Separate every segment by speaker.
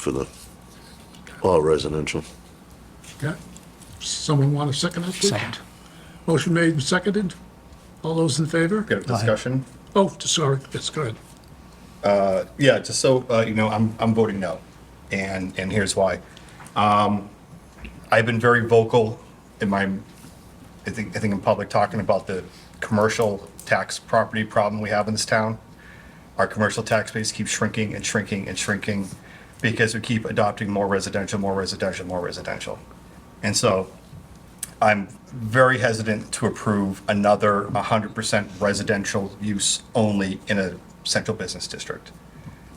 Speaker 1: for the all residential.
Speaker 2: Okay. Someone want to second that? please?
Speaker 3: Second.
Speaker 2: Motion made and seconded. All those in favor?
Speaker 4: Get a discussion?
Speaker 2: Oh, sorry, that's good.
Speaker 4: Yeah, just so, uh, you know, I'm, I'm voting no, and, and here's why. Um, I've been very vocal in my, I think, I think in public, talking about the commercial tax property problem we have in this town. Our commercial tax base keeps shrinking and shrinking and shrinking because we keep adopting more residential, more residential, more residential. And so I'm very hesitant to approve another 100% residential use only in a central business district.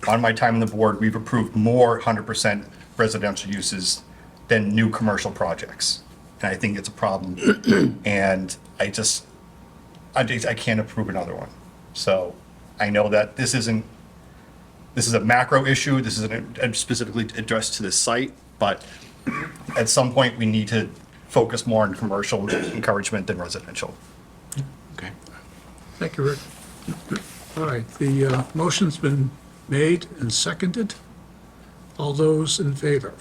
Speaker 4: On my time on the board, we've approved more 100% residential uses than new commercial projects. And I think it's a problem. And I just, I just, I can't approve another one. So I know that this isn't, this is a macro issue, this isn't specifically addressed to this site, but at some point, we need to focus more on commercial encouragement than residential.
Speaker 3: Okay.
Speaker 2: Thank you, Rick. All right, the uh, motion's been made and seconded. All those in favor?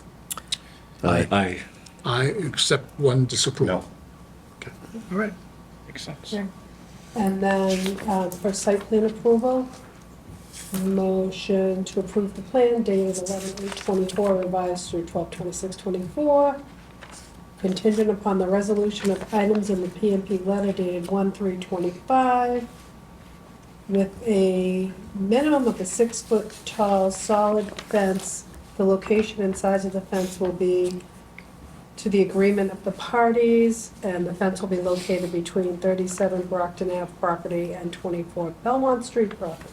Speaker 1: Aye.
Speaker 3: Aye.
Speaker 2: I accept one disapproval.
Speaker 4: No.
Speaker 2: All right.
Speaker 3: Makes sense.
Speaker 5: Sure. And then um, for site plan approval, motion to approve the plan dated 11/8/24 revised through 12/26/24, contingent upon the resolution of items in the PMP letter dated 1/3/25 with a minimum of a six-foot tall solid fence. The location and size of the fence will be to the agreement of the parties, and the fence will be located between 37 Brockton Ave property and 24 Belmont Street property.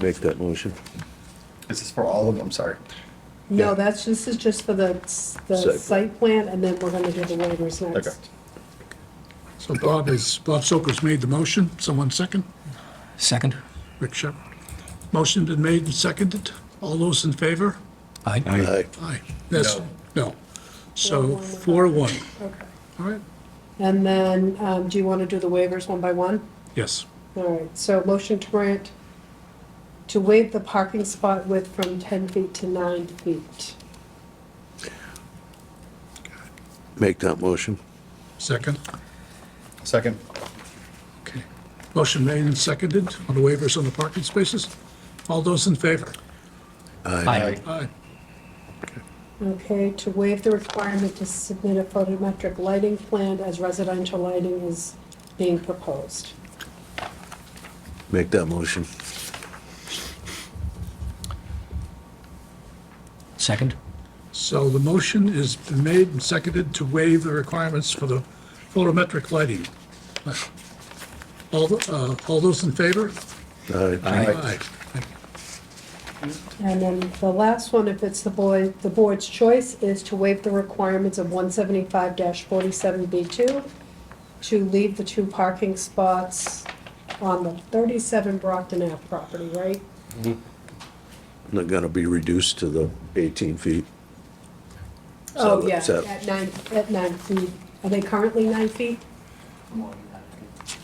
Speaker 1: Make that motion.
Speaker 4: This is for all of them, sorry.
Speaker 1: Yeah.
Speaker 5: No, that's, this is just for the,
Speaker 1: Site
Speaker 5: the
Speaker 1: plan.
Speaker 5: site plan, and then we're gonna do the waivers
Speaker 4: Okay.
Speaker 5: next.
Speaker 2: So Bob is, Bob Soker's made the motion. Someone second?
Speaker 3: Second?
Speaker 2: Rick Shepherd. Motion been made and seconded. All those in favor?
Speaker 3: Aye.
Speaker 1: Aye.
Speaker 2: Aye. Yes, no. So four to one.
Speaker 5: Okay.
Speaker 2: All right,
Speaker 5: And then, um, do you wanna do the waivers one by one?
Speaker 2: yes.
Speaker 5: All right, so motion to grant, to waive the parking spot width from 10 feet to 9 feet.
Speaker 1: Make that motion.
Speaker 2: Second.
Speaker 4: Second,
Speaker 2: Okay. Motion made and seconded on the waivers on the parking spaces. All those in favor?
Speaker 4: Aye.
Speaker 2: Aye.
Speaker 5: Okay, to waive the requirement to submit a photometric lighting plan as residential lighting is being proposed.
Speaker 1: Make that motion.
Speaker 3: Second?
Speaker 2: So the motion is made and seconded to waive the requirements for the photometric lighting. All, the- uh, all those in favor?
Speaker 1: Aye.
Speaker 3: Aye.
Speaker 2: Thank you.
Speaker 5: And then the last one, if it's the boy, the board's choice, is to waive the requirements of one seventy-five forty-seven B two to leave the two parking spots on the thirty-seven Brockton Ave property, right?
Speaker 1: Not gonna be reduced to the 18 feet. So
Speaker 5: Oh, yeah,
Speaker 1: it's at-
Speaker 5: at nine, at nine feet. Are they currently nine feet?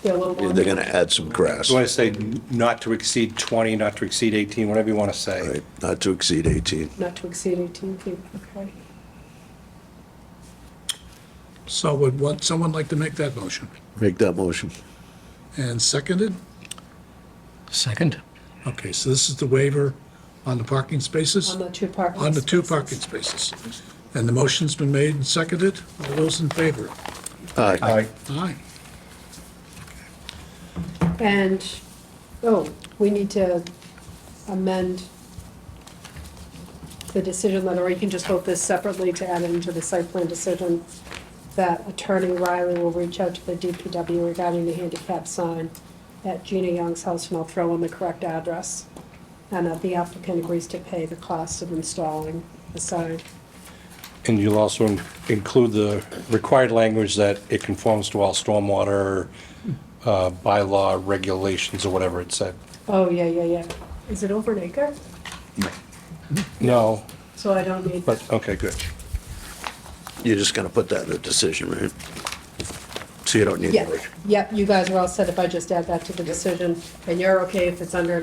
Speaker 5: They're a little
Speaker 1: Yeah,
Speaker 5: longer.
Speaker 1: They're gonna add some grass.
Speaker 6: You want to say not to exceed 20, not to exceed 18, whatever you want to say.
Speaker 1: Right, not to exceed 18.
Speaker 5: Not to exceed 18 feet, okay.
Speaker 2: So would one, someone like to make that motion?
Speaker 1: Make that motion.
Speaker 2: And seconded?
Speaker 3: Second?
Speaker 2: Okay, so this is the waiver on the parking spaces?
Speaker 5: On the two parking.
Speaker 2: On the two
Speaker 5: spaces.
Speaker 2: parking spaces. And the motion's been made and seconded. All those in favor?
Speaker 1: Aye.
Speaker 4: aye.
Speaker 2: Aye.
Speaker 5: And, oh, we need to amend the decision letter, or you can just vote this separately to add it into the site plan decision, that Attorney Riley will reach out to the DPW regarding the handicap sign at Gina Young's house, and I'll throw in the correct address. And that the applicant agrees to pay the cost of installing the sign.
Speaker 6: And you'll also in- include the required language that it conforms to all stormwater uh, bylaw regulations or whatever it said.
Speaker 5: Oh, yeah, yeah, yeah. Is it over an acre?
Speaker 6: No,
Speaker 5: So I don't need,
Speaker 6: but, okay, good.
Speaker 1: You're just gonna put that in a decision, right? so you don't need to
Speaker 5: Yeah,
Speaker 1: worry.
Speaker 5: yep, you guys are all set if I just add that to the decision, and you're okay if it's under